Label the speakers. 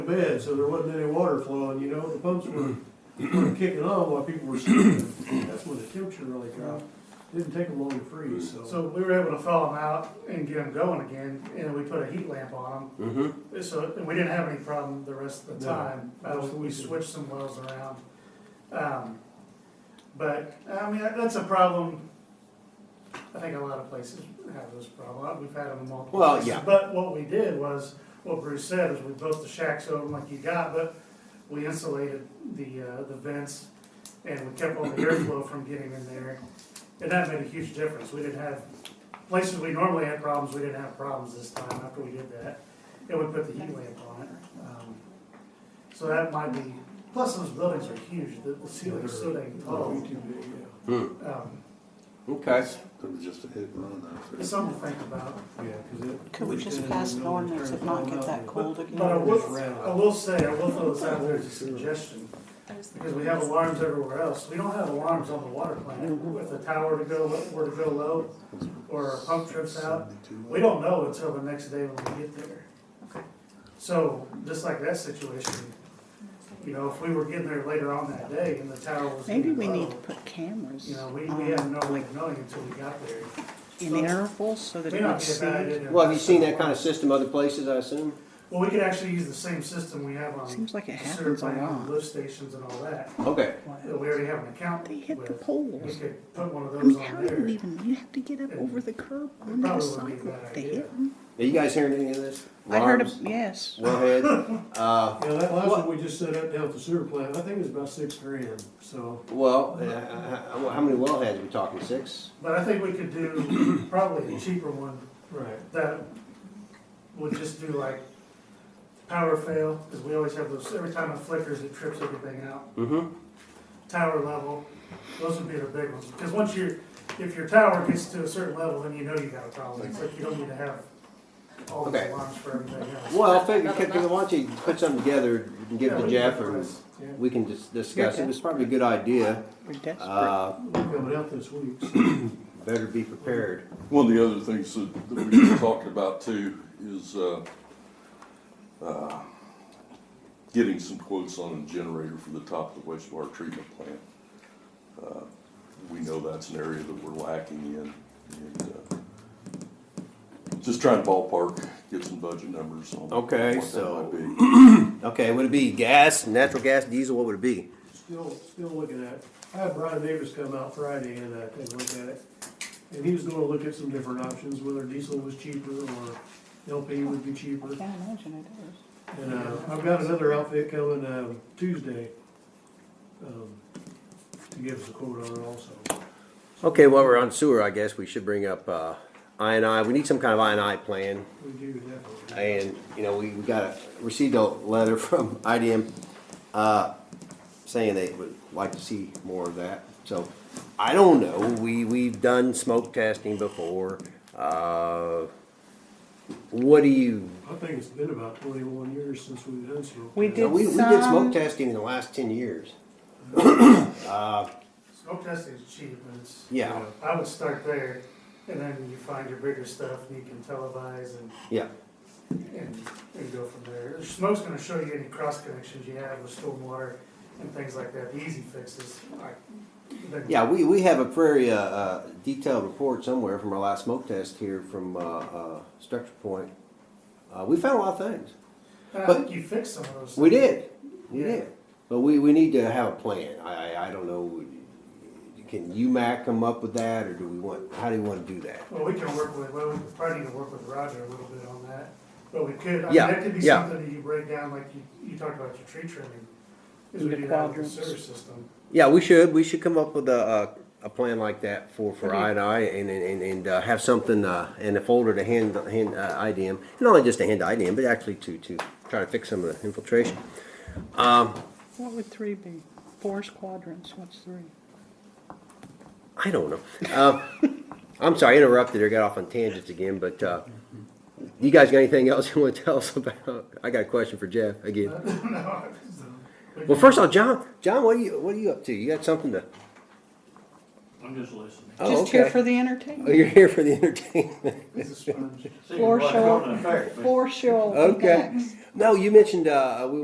Speaker 1: bed, so there wasn't any water flowing, you know, the pumps were were kicking on while people were sleeping. That's when the temperature really dropped. Didn't take them long to freeze,
Speaker 2: So we were able to thaw them out and get them going again, and then we put a heat lamp on
Speaker 3: Mm-hmm.
Speaker 2: them, so, and we didn't have any problem the rest of the
Speaker 1: No,
Speaker 2: time. Uh, we
Speaker 1: absolutely.
Speaker 2: switched some wells around. Um, but, I mean, that- that's a problem, I think a lot of places have this problem, we've had them in multiple
Speaker 3: Well,
Speaker 2: places.
Speaker 3: yeah.
Speaker 2: But what we did was, what Bruce said, is we built the shacks over them like you got, but we insulated the, uh, the vents, and we kept all the airflow from getting in there. And that made a huge difference. We didn't have, places we normally had problems, we didn't have problems this time after we did that. And we put the heat lamp on it. Um, So that might be, plus those buildings are huge, the the ceiling's so dang tall.
Speaker 1: so.
Speaker 2: Um,
Speaker 3: mm-hmm, Okay.
Speaker 4: It was just a hit and run out
Speaker 2: It's
Speaker 4: there.
Speaker 2: something to think about.
Speaker 5: Could we just pass an ordinance and not get that cold again?
Speaker 2: But I will, I will say, I will throw this out there as a suggestion, because we have alarms everywhere else. We don't have alarms on the water plant with a tower to go, where to go low, or a pump trips out. We don't know until the next day when we get there.
Speaker 5: Okay.
Speaker 2: So, just like that situation, you know, if we were getting there later on that day and the tower was.
Speaker 6: Maybe we
Speaker 2: getting
Speaker 6: need to
Speaker 2: low,
Speaker 6: put cameras
Speaker 2: You know, we, we had
Speaker 6: on,
Speaker 2: no way
Speaker 6: like,
Speaker 2: of knowing until we got there.
Speaker 6: in intervals so that
Speaker 2: May
Speaker 6: it
Speaker 2: not
Speaker 6: would
Speaker 2: be a
Speaker 6: see.
Speaker 2: bad
Speaker 6: it.
Speaker 2: idea.
Speaker 3: Well, have you seen that kind of system other places, I assume?
Speaker 2: Well, we could actually use the same system we have on.
Speaker 6: Seems like it
Speaker 2: the
Speaker 6: happens a
Speaker 2: survey on
Speaker 6: lot.
Speaker 2: Lift stations and all that,
Speaker 3: Okay.
Speaker 2: that we already have an account
Speaker 6: They
Speaker 2: with.
Speaker 6: hit the
Speaker 2: We
Speaker 6: poles.
Speaker 2: could put one of
Speaker 6: I
Speaker 2: those
Speaker 6: mean, how
Speaker 2: on
Speaker 6: do you
Speaker 2: there.
Speaker 6: even, you have to get up over the curb
Speaker 2: It
Speaker 6: on the
Speaker 2: probably would be a
Speaker 6: cycle
Speaker 2: bad
Speaker 6: to
Speaker 2: idea.
Speaker 6: hit 'em.
Speaker 3: Are you guys hearing any of this?
Speaker 6: I heard,
Speaker 3: Alarms?
Speaker 6: a- yes.
Speaker 3: Wellhead? Uh,
Speaker 1: Yeah, that last one we just set up down at the sewer plant, I think it was about six grand, so.
Speaker 3: well, uh, how, how many wellheads are we talking? Six?
Speaker 2: But I think we could do probably a cheaper one
Speaker 1: Right.
Speaker 2: that would just do like power fail, because we always have those, every time it flickers, it trips everything out.
Speaker 3: Mm-hmm.
Speaker 2: Tower level, those would be the big ones, because once you're, if your tower gets to a certain level, then you know you got a problem, it's like you don't need to have all these
Speaker 3: Okay.
Speaker 2: alarms for everything else.
Speaker 3: Well, I figure, could- could- why don't you put something together and give it
Speaker 2: Yeah,
Speaker 3: to
Speaker 2: we
Speaker 3: Jeff
Speaker 2: can
Speaker 3: or
Speaker 2: address, yeah.
Speaker 3: we can dis- discuss it. It's probably a good idea.
Speaker 6: We're desperate.
Speaker 3: Uh,
Speaker 1: We're coming out this week, so.
Speaker 3: better be prepared.
Speaker 4: One of the other things that, that we talked about too is, uh, uh, getting some quotes on a generator for the top of the wastewater treatment plant. Uh, We know that's an area that we're lacking in, and, uh, just trying to ballpark, get some budget numbers on.
Speaker 3: Okay,
Speaker 4: what that
Speaker 3: so-
Speaker 4: might be.
Speaker 3: Okay, would it be gas, natural gas, diesel? What would it be?
Speaker 1: Still, still looking at, it. I had Brian Davis come out Friday and uh, take a look at it. And he was gonna look at some different options, whether diesel was cheaper or LP would be cheaper.
Speaker 6: I can't imagine it is.
Speaker 1: And, uh, I've got another outfit coming, um, Tuesday, um, to give us a quote on it also.
Speaker 3: Okay, while we're on sewer, I guess we should bring up uh, INI. We need some kind of INI plan.
Speaker 1: We do definitely.
Speaker 3: And, you know, we we got, a received a letter from IDM uh, saying they would like to see more of that. So, I don't know, we, we've done smoke testing before. Uh, What do you,
Speaker 1: I think it's been about twenty-one years since we've done smoke.
Speaker 6: We
Speaker 1: test.
Speaker 3: we
Speaker 6: did
Speaker 3: we did smoke
Speaker 6: some,
Speaker 3: testing in the last ten years.
Speaker 2: Smoke testing is cheap, and it's.
Speaker 3: Yeah,
Speaker 2: I would start there, and then you find your bigger stuff, and you can televise and,
Speaker 3: yeah,
Speaker 2: and, and go from there. Smoke's gonna show you any cross connections you have with stormwater and things like that, the easy fixes, like. then-
Speaker 3: yeah, we, we have a very uh, uh, detailed report somewhere from our last smoke test here from uh, uh, Structure Point. Uh, We found a lot of things.
Speaker 2: And I
Speaker 3: but-
Speaker 2: think you fixed some of those.
Speaker 3: We
Speaker 2: things.
Speaker 3: did, we did, but we, we need to have a plan, I, I, I don't know, can UMAC come up with that, or do we want, how do you wanna do that?
Speaker 2: Well, we can work with, well, we probably need to work with Roger a little bit on that, but we could, I mean,
Speaker 3: Yeah,
Speaker 2: that could be
Speaker 3: yeah.
Speaker 2: something that you break down, like you, you talked about your tree trimming. Is we
Speaker 6: The
Speaker 2: do that with the
Speaker 6: quadrants.
Speaker 2: sewer system.
Speaker 3: Yeah, we should, we should come up with a, a, a plan like that for, for
Speaker 6: Okay.
Speaker 3: I and I, and, and- and, and uh, have something, uh, in a folder to hand, hand, uh, IDM, not only just to hand to IDM, but actually to, to try to fix some of the infiltration.
Speaker 6: what would three be? Four squadrons, what's three?
Speaker 3: I don't know. Uh, I'm sorry, I interrupted or got off on tangents again, but uh, you guys got anything else you want to tell us about? I got a question for Jeff again. Well, first of all, John, John, what are you what are you up to? You got something to?
Speaker 7: I'm just listening.
Speaker 3: Oh,
Speaker 6: Just here
Speaker 3: okay.
Speaker 6: for the
Speaker 3: Oh,
Speaker 6: entertainment,
Speaker 3: you're here for the entertainment.
Speaker 2: It's a sponge.
Speaker 7: See
Speaker 6: Floor
Speaker 7: what's
Speaker 6: show.
Speaker 7: going on there, but-
Speaker 6: for show.
Speaker 3: Okay.
Speaker 6: thanks.
Speaker 3: No, you mentioned uh, we